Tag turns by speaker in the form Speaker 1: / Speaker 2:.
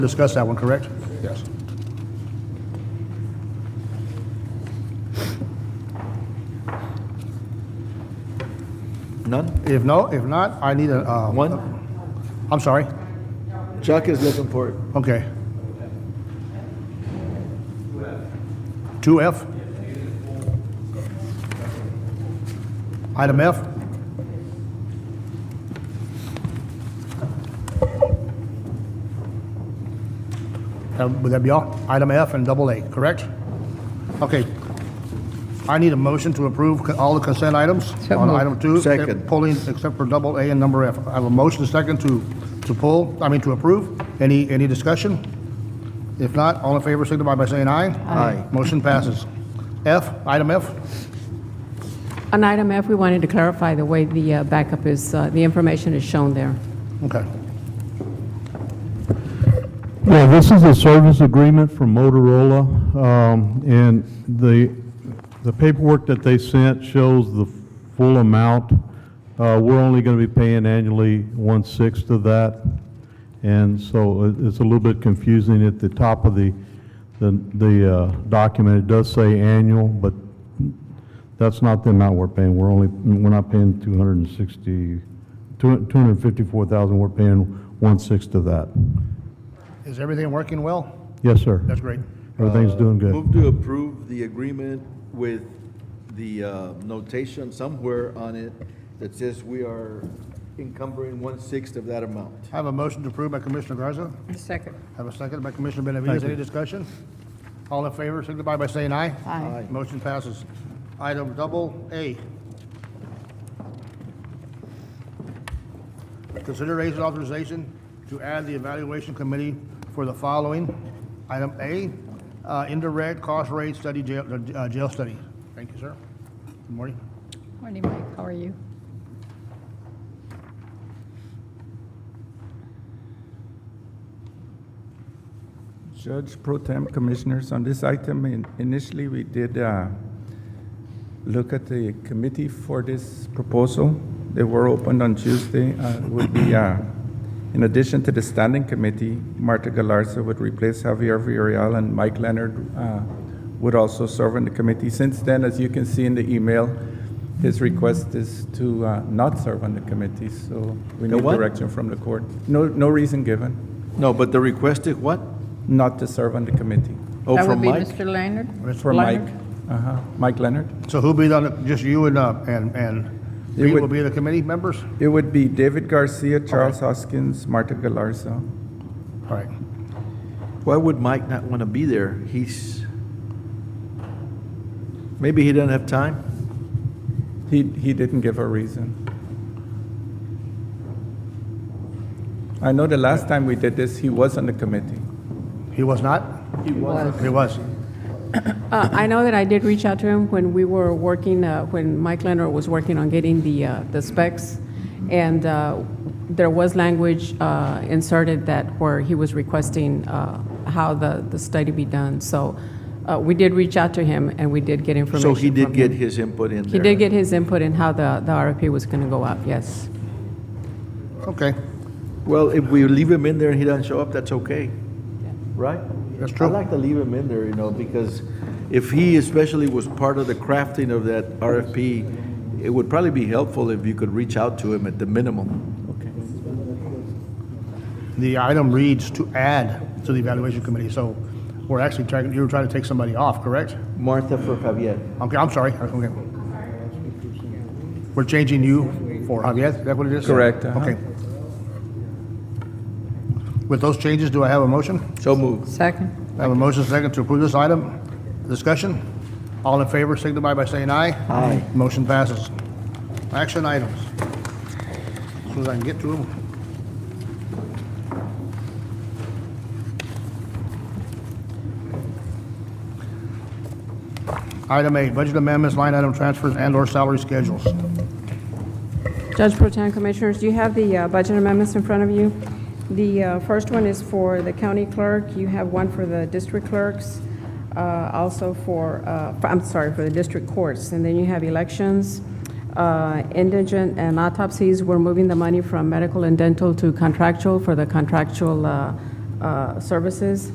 Speaker 1: discussed that one, correct?
Speaker 2: Yes.
Speaker 3: None?
Speaker 1: If no, if not, I need a, uh,
Speaker 3: One?
Speaker 1: I'm sorry.
Speaker 3: Chuck is looking for it.
Speaker 1: Okay. 2F? Item F? Uh, Would that be all? Item F and double A, correct? Okay. I need a motion to approve co- all the consent items
Speaker 4: So
Speaker 1: on
Speaker 4: moved.
Speaker 1: item two.
Speaker 3: Second.
Speaker 1: Pulling except for double A and number F. I have a motion second to, to pull, I mean, to approve. Any, any discussion? If not, all in favor signify by saying aye.
Speaker 3: Aye.
Speaker 1: Motion passes. F, item F?
Speaker 4: On item F, we wanted to clarify the way the uh, backup is, uh, the information is shown there.
Speaker 1: Okay.
Speaker 5: Yeah, this is a service agreement from Motorola, um, and the, the paperwork that they sent shows the full amount. Uh, We're only going to be paying annually one-sixth of that, and so it- it's a little bit confusing at the top of the, the the uh, document. It does say annual, but that's not the amount we're paying. We're only, we're not paying 260, 254,000, we're paying one-sixth of that.
Speaker 1: Is everything working well?
Speaker 5: Yes, sir.
Speaker 1: That's great.
Speaker 5: Everything's doing good.
Speaker 3: Move to approve the agreement with the uh, notation somewhere on it that says we are encumbering one-sixth of that amount.
Speaker 1: I have a motion to approve by Commissioner Garza.
Speaker 4: Second.
Speaker 1: Have a second by Commissioner Benavides. Any discussion? All in favor, signify by saying aye.
Speaker 4: Aye.
Speaker 3: Aye.
Speaker 1: Motion passes. Item double A. Consideration authorization to add the evaluation committee for the following. Item A, uh, indirect cost rate study, jail, uh, jail study. Thank you, sir. Good morning.
Speaker 6: Morning, Mike, how are you?
Speaker 2: Judge Pro Tem Commissioners, on this item, in- initially, we did uh, look at the committee for this proposal. They were opened on Tuesday. Uh, it Would be, uh, in addition to the standing committee, Marta Galarza would replace Javier Villarreal, and Mike Leonard uh, would also serve on the committee. Since then, as you can see in the email, his request is to uh, not serve on the committee, so we
Speaker 3: The
Speaker 2: need
Speaker 3: what?
Speaker 2: direction from the court. No, no reason given
Speaker 3: No, but the request is what?
Speaker 2: not to serve on the committee.
Speaker 3: Oh, from Mike?
Speaker 4: Mr. Leonard?
Speaker 2: For Mike, uh-huh, Mike Leonard.
Speaker 1: So who'll be on, the- just you and, uh, and, and
Speaker 2: It
Speaker 1: Reed
Speaker 2: would-
Speaker 1: will be the committee members?
Speaker 2: It would be David Garcia, Charles Hoskins, Marta Galarza.
Speaker 1: All right.
Speaker 3: Why would Mike not want to be there? He's, maybe he doesn't have time?
Speaker 2: He, he didn't give a reason. I know the last time we did this, he was on the committee.
Speaker 1: He was not? He was. He was.
Speaker 4: Uh, I know that I did reach out to him when we were working, uh, when Mike Leonard was working on getting the, uh, the specs, and uh, there was language uh, inserted that where he was requesting uh, how the, the study be done. So uh, we did reach out to him, and we did get information
Speaker 3: So he did
Speaker 4: from
Speaker 3: get
Speaker 4: him.
Speaker 3: his input in there?
Speaker 4: He did get his input in how the, the RFP was going to go out, yes.
Speaker 1: Okay,
Speaker 3: Well, if we leave him in there and he doesn't show up, that's okay, right?
Speaker 1: That's true.
Speaker 3: I like to leave him in there, you know, because if he especially was part of the crafting of that RFP, it would probably be helpful if you could reach out to him at the minimum.
Speaker 1: the item reads to add to the evaluation committee, so we're actually trying, you were trying to take somebody off, correct?
Speaker 3: Martha for Javier.
Speaker 1: Okay, I'm sorry, okay. We're changing you for Javier, is that what it is?
Speaker 2: Correct, uh-huh.
Speaker 1: Okay. With those changes, do I have a motion?
Speaker 3: So moved.
Speaker 4: Second.
Speaker 1: I have a motion second to approve this item. Discussion? All in favor signify by saying aye. Aye. Motion passes. Action items. As Soon as I can get to them. Item A, budget amendments, line item transfers and/or salary schedules.
Speaker 4: Judge Pro Tem Commissioners, you have the uh, budget amendments in front of you. The uh, first one is for the county clerk, you have one for the district clerks, uh, also for, uh, for- I'm sorry, for the district courts, and then you have elections, uh, indigent and autopsies, we're moving the money from medical and dental to contractual for the contractual uh, uh, services.